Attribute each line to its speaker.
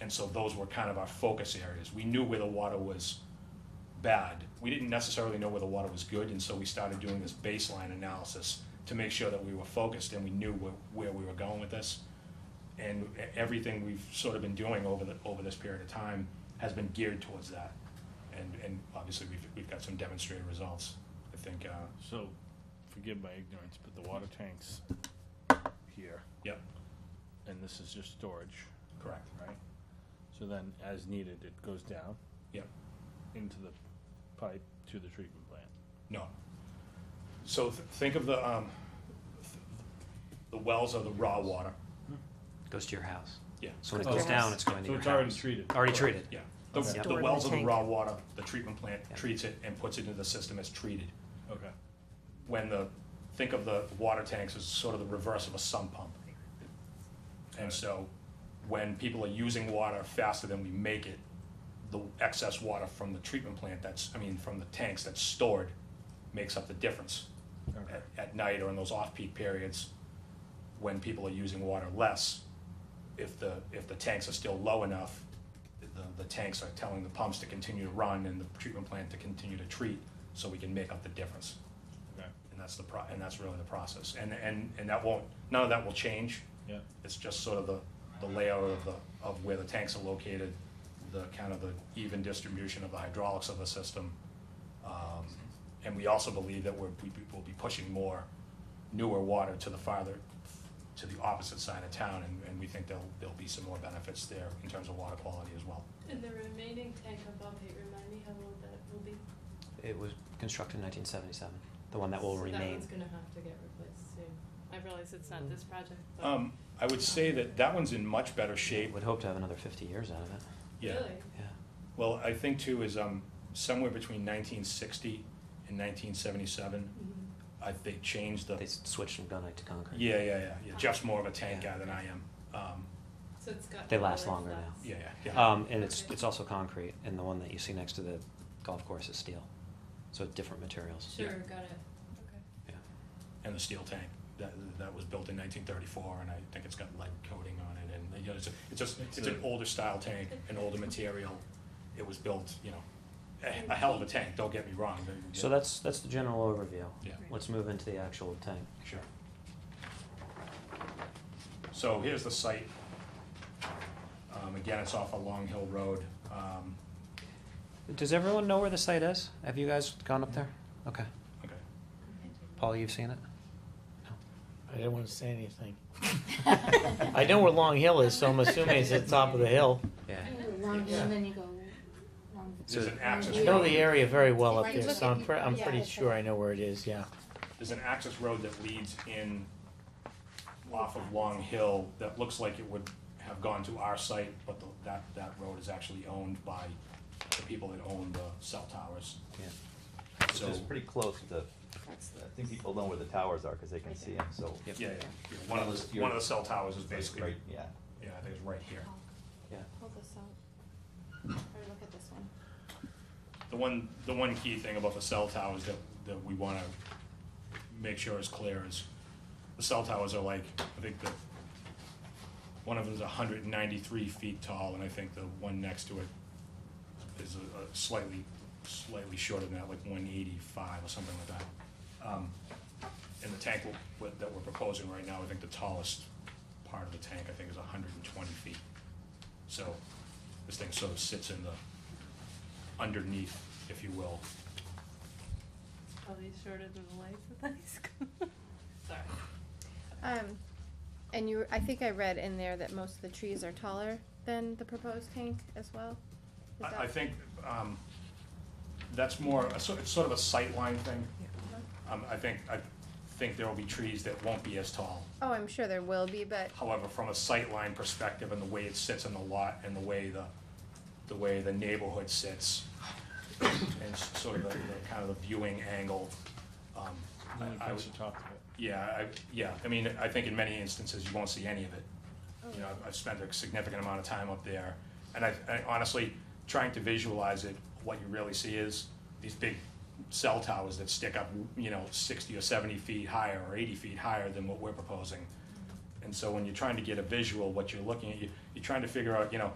Speaker 1: And so those were kind of our focus areas. We knew where the water was bad. We didn't necessarily know where the water was good, and so we started doing this baseline analysis to make sure that we were focused and we knew where, where we were going with this. And e- everything we've sort of been doing over the, over this period of time has been geared towards that. And, and obviously, we've, we've got some demonstrated results. I think, uh,
Speaker 2: So, forgive my ignorance, but the water tanks here,
Speaker 1: yep,
Speaker 2: and this is just storage,
Speaker 1: correct,
Speaker 2: right? So then, as needed, it goes down
Speaker 1: yep.
Speaker 2: into the pipe to the treatment plant.
Speaker 1: No. So th- think of the, um, th- the wells are the raw water.
Speaker 3: Goes to your house.
Speaker 1: Yeah,
Speaker 3: So when it
Speaker 2: Oh.
Speaker 3: goes down,
Speaker 4: Yes.
Speaker 3: it's going to
Speaker 2: So
Speaker 3: your
Speaker 2: it's already
Speaker 3: house.
Speaker 2: treated.
Speaker 3: Already treated.
Speaker 1: yeah. The,
Speaker 3: Okay.
Speaker 1: the
Speaker 4: Stored in
Speaker 1: wells
Speaker 4: the
Speaker 1: are the
Speaker 4: tank.
Speaker 1: raw water, the treatment plant
Speaker 3: Yeah.
Speaker 1: treats it and puts it into the system as treated.
Speaker 2: Okay.
Speaker 1: When the, think of the water tanks as sort of the reverse of a sump pump. And so when people are using water faster than we make it, the excess water from the treatment plant that's, I mean, from the tanks that's stored makes up the difference.
Speaker 2: Okay.
Speaker 1: at, at night or in those off-peak periods when people are using water less, if the, if the tanks are still low enough, the, the tanks are telling the pumps to continue to run and the treatment plant to continue to treat, so we can make up the difference.
Speaker 2: Okay.
Speaker 1: And that's the pro, and that's really the process. And, and, and that won't, none of that will change.
Speaker 2: Yeah.
Speaker 1: It's just sort of the, the layout of the, of where the tanks are located, the kind of the even distribution of the hydraulics of the system. Um, And we also believe that we're, we will be pushing more newer water to the farther, to the opposite side of town, and, and we think there'll, there'll be some more benefits there in terms of water quality as well.
Speaker 5: And the remaining tank above it, remind me how old that will be?
Speaker 3: It was constructed in 1977. The one that will
Speaker 5: So That
Speaker 3: remain.
Speaker 5: one's gonna have to get replaced soon. I realize it's not this project, but.
Speaker 1: Mm-hmm. Um, I would say that that one's in much better shape.
Speaker 3: Would hope to have another 50 years out of it.
Speaker 1: Yeah.
Speaker 5: Really?
Speaker 3: Yeah.
Speaker 1: Well, I think too is, um, somewhere between nineteen sixty and nineteen seventy-seven,
Speaker 5: Mhm.
Speaker 1: I, they changed the.
Speaker 3: They s- switched from gunite to concrete.
Speaker 1: Yeah, yeah, yeah, yeah. Jeff's more of a tank
Speaker 3: Yeah.
Speaker 1: guy than I am. Um,
Speaker 5: So it's got.
Speaker 3: They
Speaker 5: the
Speaker 3: last
Speaker 5: lower
Speaker 3: longer now.
Speaker 5: flats.
Speaker 1: yeah, yeah, yeah.
Speaker 3: Um, and it's
Speaker 5: Okay.
Speaker 3: it's also concrete, and the one that you see next to the golf course is steel, so it's different materials.
Speaker 1: Yeah.
Speaker 5: Sure, got it. Okay.
Speaker 3: Yeah.
Speaker 1: and the steel tank that that was built in 1934, and I think it's got lead coating on it, and you know, it's a, it's just it's,
Speaker 2: It's
Speaker 1: an
Speaker 2: a-
Speaker 1: older style tank, an older material. It was built, you know, a, a hell of a tank. Don't get me wrong. but-
Speaker 3: So that's that's the general overview.
Speaker 1: Yeah.
Speaker 5: Right.
Speaker 3: Let's move into the actual tank.
Speaker 1: Sure. So here's the site. Um, again, it's off a Long Hill Road. Um,
Speaker 3: Does everyone know where the site is? Have you guys gone up there? Okay.
Speaker 1: okay.
Speaker 3: Paul, you've seen it?
Speaker 6: I didn't want to say anything. I know where Long Hill is, so I'm assuming it's at the top of the hill.
Speaker 3: Yeah.
Speaker 7: Long
Speaker 1: Yeah.
Speaker 7: and then you go long.
Speaker 1: There's an access
Speaker 6: I know the
Speaker 1: road.
Speaker 6: area very well up
Speaker 7: Right,
Speaker 6: there,
Speaker 7: look
Speaker 6: so
Speaker 7: at
Speaker 6: I'm,
Speaker 7: you-
Speaker 6: pre- I'm
Speaker 7: yeah,
Speaker 6: pretty
Speaker 7: that's
Speaker 6: sure
Speaker 7: right.
Speaker 6: I know where it is, yeah.
Speaker 1: There's an access road that leads in off of Long Hill that looks like it would have gone to our site, but the- that, that road is actually owned by the people that own the cell towers.
Speaker 3: Yeah.
Speaker 8: Which
Speaker 1: So,
Speaker 8: is pretty close to, I think people know where the towers are, cause they can
Speaker 7: Right
Speaker 8: see
Speaker 7: there.
Speaker 8: them, so.
Speaker 3: Yep.
Speaker 1: yeah, yeah, yeah. One of the, one of the cell towers is basically,
Speaker 8: Right, yeah.
Speaker 1: yeah, I think it's right here.
Speaker 3: Yeah.
Speaker 7: Pull this out. Or look at this one.
Speaker 1: The one, the one key thing about the cell towers that, that we wanna make sure is clear is, the cell towers are like, I think the, one of them's hundred and ninety-three feet tall, and I think the one next to it is a a slightly, slightly shorter than that, like one eighty-five or something like that. Um, And the tank w- w- that we're proposing right now, I think the tallest part of the tank, I think, is hundred and twenty feet. So, this thing sort of sits in the, underneath, if you will.
Speaker 5: Probably shorter than the lights at the high school. Sorry.
Speaker 9: Um, and you, I think I read in there that most of the trees are taller than the proposed tank as well? Is
Speaker 1: I, I
Speaker 9: that-
Speaker 1: think, um, that's more, a sort, it's sort of a sightline thing. Um, I think, I think there will be trees that won't be as tall.
Speaker 9: Oh, I'm sure there will be, but,
Speaker 1: However, from a sightline perspective and the way it sits in the lot and the way the, the way the neighborhood sits and s- sort of the, the kind of the viewing angle, um, I-
Speaker 2: Only
Speaker 1: I would,
Speaker 2: place to talk about.
Speaker 1: yeah, I, yeah, I mean, I think in many instances, you won't see any of it. You know, I've- I've spent a significant amount of time up there, and I, I honestly, trying to visualize it, what you really see is these big cell towers that stick up, you know, sixty or seventy feet higher, or eighty feet higher than what we're proposing. And so when you're trying to get a visual, what you're looking at, you, you're trying to figure out, you know,